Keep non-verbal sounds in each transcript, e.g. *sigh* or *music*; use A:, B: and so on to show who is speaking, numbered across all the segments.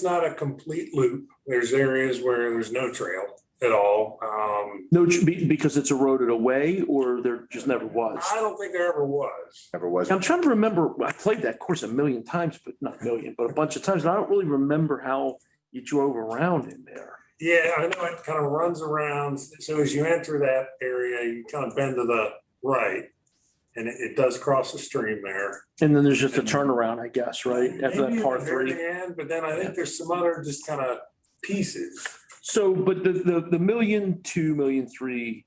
A: it's not a complete loop. There's areas where there's no trail at all. Um,
B: No, be- because it's eroded away or there just never was.
A: I don't think there ever was.
C: Never was.
B: I'm trying to remember, I played that course a million times, but not a million, but a bunch of times. And I don't really remember how you drove around in there.
A: Yeah, I know it kind of runs around. So as you enter that area, you kind of bend to the right. And it, it does cross the stream there.
B: And then there's just a turnaround, I guess, right? After
A: Maybe
B: that
A: at
B: par
A: the
B: three.
A: very end, But then I think there's some other just kind of pieces.
B: So, but the, the, the million, two million, three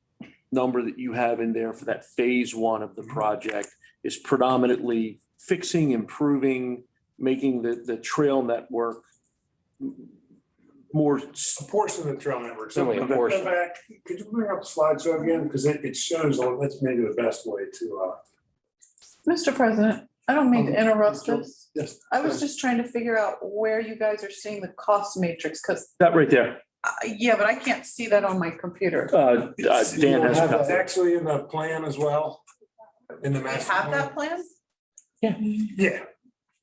B: number that you have in there for that phase one of the project is predominantly fixing, improving, making the, the trail network more, s-
A: A portion of the trail network. So
B: Only a
A: if I go
B: portion.
A: back, Could you bring up the slideshow again? Because it, it shows, on- that's maybe the best way to, uh,
D: Mr. President, I don't
E: Um,
D: mean to interrupt
A: sure.
D: this.
A: Yes.
D: I was just trying to figure out where you guys are seeing the cost matrix, because,
B: that right there.
D: yeah, but I can't see that on my computer.
B: Uh, uh,
A: You
B: Dan
A: don't
B: has a
A: have that
B: copy.
A: Actually in the plan as well, in the
D: Do we
A: master.
D: have
A: plan.
D: that plan?
A: Yeah,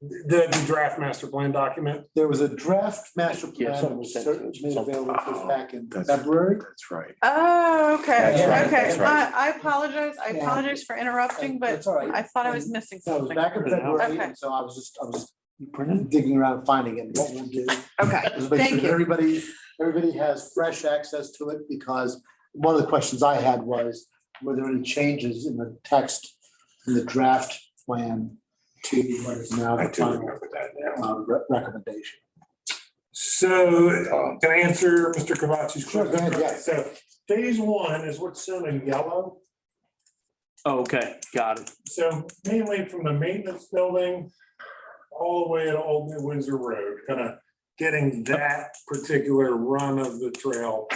A: the, the draft master plan document.
E: There was a draft master
B: Yeah,
E: plan that was
B: something-
E: cer- made available to us back in
C: That's-
E: February.
C: That's right.
D: Oh, okay,
C: That's
E: right,
D: okay.
E: that's
C: right.
D: I, I apologize. I
E: Yeah.
D: apologize for interrupting, but
E: That's all right.
D: I thought I was missing
E: So it was
D: something.
E: back in February,
D: Okay.
E: and so I was just, I was
B: You printed it?
E: digging around, finding it. What we'll do
D: Okay,
E: is make sure
D: Thank
E: that
D: you.
E: everybody, everybody has fresh access to it, because one of the questions I had was, were there any changes in the text in the draft plan to what is now
A: I
E: the
A: do
E: final
A: remember that now.
E: uh, re- recommendation?
A: So can I answer Mr. Kavach's
E: Sure, go ahead, yeah.
A: question? So phase one is what's shown in yellow.
B: Oh, Okay, got it.
A: So mainly from the maintenance building all the way to Old New Windsor Road, kind of getting that particular run of the trail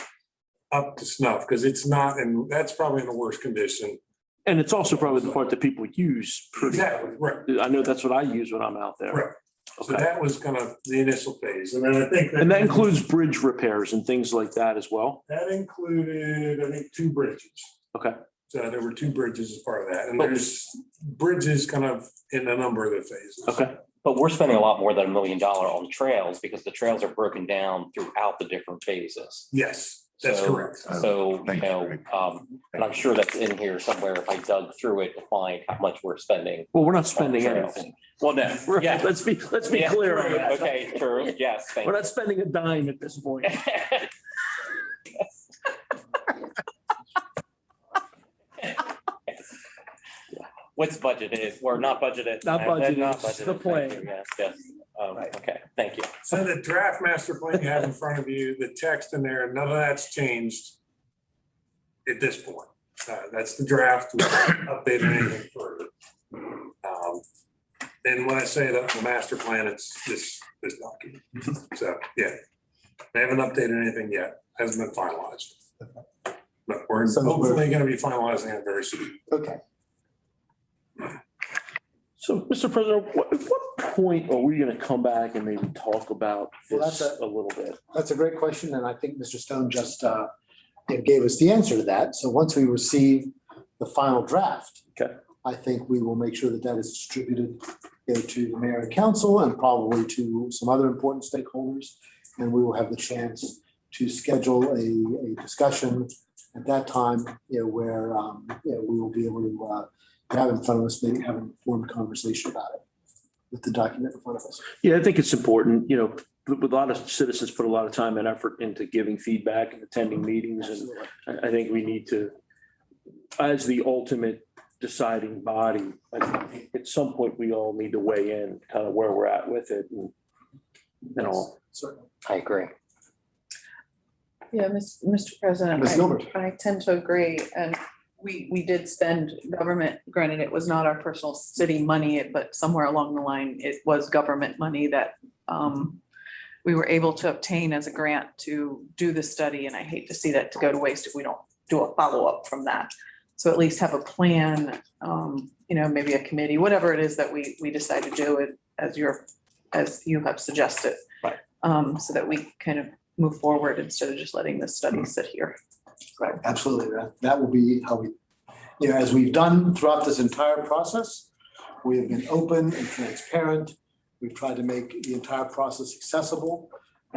A: up to snuff, because it's not, and that's probably in the worst condition.
B: And it's also probably the part that people use pretty.
A: Exactly, right.
B: I know that's what I use when I'm out
A: Right.
B: there.
A: So
B: Okay.
A: that was kind of the initial phase, and then I think.
B: And that includes bridge repairs and things like that as well.
A: That included, I think, two bridges.
B: Okay.
A: So there were two bridges as part of that, and there's bridges kind of in a number of the phases.
B: Okay,
F: But we're spending a lot more than a million dollar on trails because the trails are broken down throughout the different phases.
A: Yes, that's
F: So-
A: correct.
F: So, you
C: Oh, Thank you,
F: know,
C: Rick.
F: um, and I'm sure that's in here somewhere if I dug through it to find how much we're spending.
B: well, we're not
F: on
B: spending
A: Oh,
F: trails.
B: anything.
F: Well, no,
B: Right,
F: *laughs* yeah.
B: *laughs* Let's be, let's be
F: Yeah,
B: clear on
F: true.
B: that.
F: Okay, true, yes, thank
B: We're
F: you.
B: not spending a dime at this point.
F: *laughs* What's budgeted, we're not budgeted.
B: Not budgeted,
F: Not
B: it's
F: budgeted,
B: the
F: thank
B: plan.
F: you, Yes, yes, um, okay, thank you.
A: So the draft master plan you have in front of you, the text in there, none of that's changed at this point. Uh, That's the draft, we haven't updated anything further. Um, And when I say that the master plan, it's this, this document. So, yeah, they haven't updated anything yet, hasn't been finalized. But we're
E: Sounds good.
A: hopefully going to be finalizing it very soon.
E: Okay,
B: So, Mr. President, what, at what point are we gonna come back and maybe talk about
E: Well,
B: this
E: that's
B: a little bit?
E: that's a great question, and I think Mr. Stone just uh, gave us the answer to that. So once we receive the final draft.
B: Okay.
E: I think we will make sure that that is distributed you know, to the mayor and council and probably to some other important stakeholders. And we will have the chance to schedule a, a discussion at that time, you know, where, um, you know, we will be able to uh, have in front of us, maybe have an informed conversation about it with the document in front of us.
B: Yeah, I think it's important, you know, with with a lot of citizens put a lot of time and effort into giving feedback and attending meetings and
E: Absolutely.
B: I, I think we need to, as the ultimate deciding body, I think at some point, we all need to weigh in kind of where we're at with it and, and all.
E: Certainly.
F: I agree.
D: Yeah, Miss- Mr. President.
E: Ms.
D: I-
E: Gilbert.
D: I tend to agree, and we, we did spend government, granted, it was not our personal city money, it- but somewhere along the line, it was government money that um, we were able to obtain as a grant to do the study, and I hate to see that to go to waste if we don't do a follow-up from that. So at least have a plan, um, you know, maybe a committee, whatever it is that we, we decide to do it as your, as you have suggested.
F: Right.
D: Um, so that we kind of move forward instead of just letting this study sit here.
E: Right, absolutely. That, that will be how we, you know, as we've done throughout this entire process, we have been open and transparent. We've tried to make the entire process accessible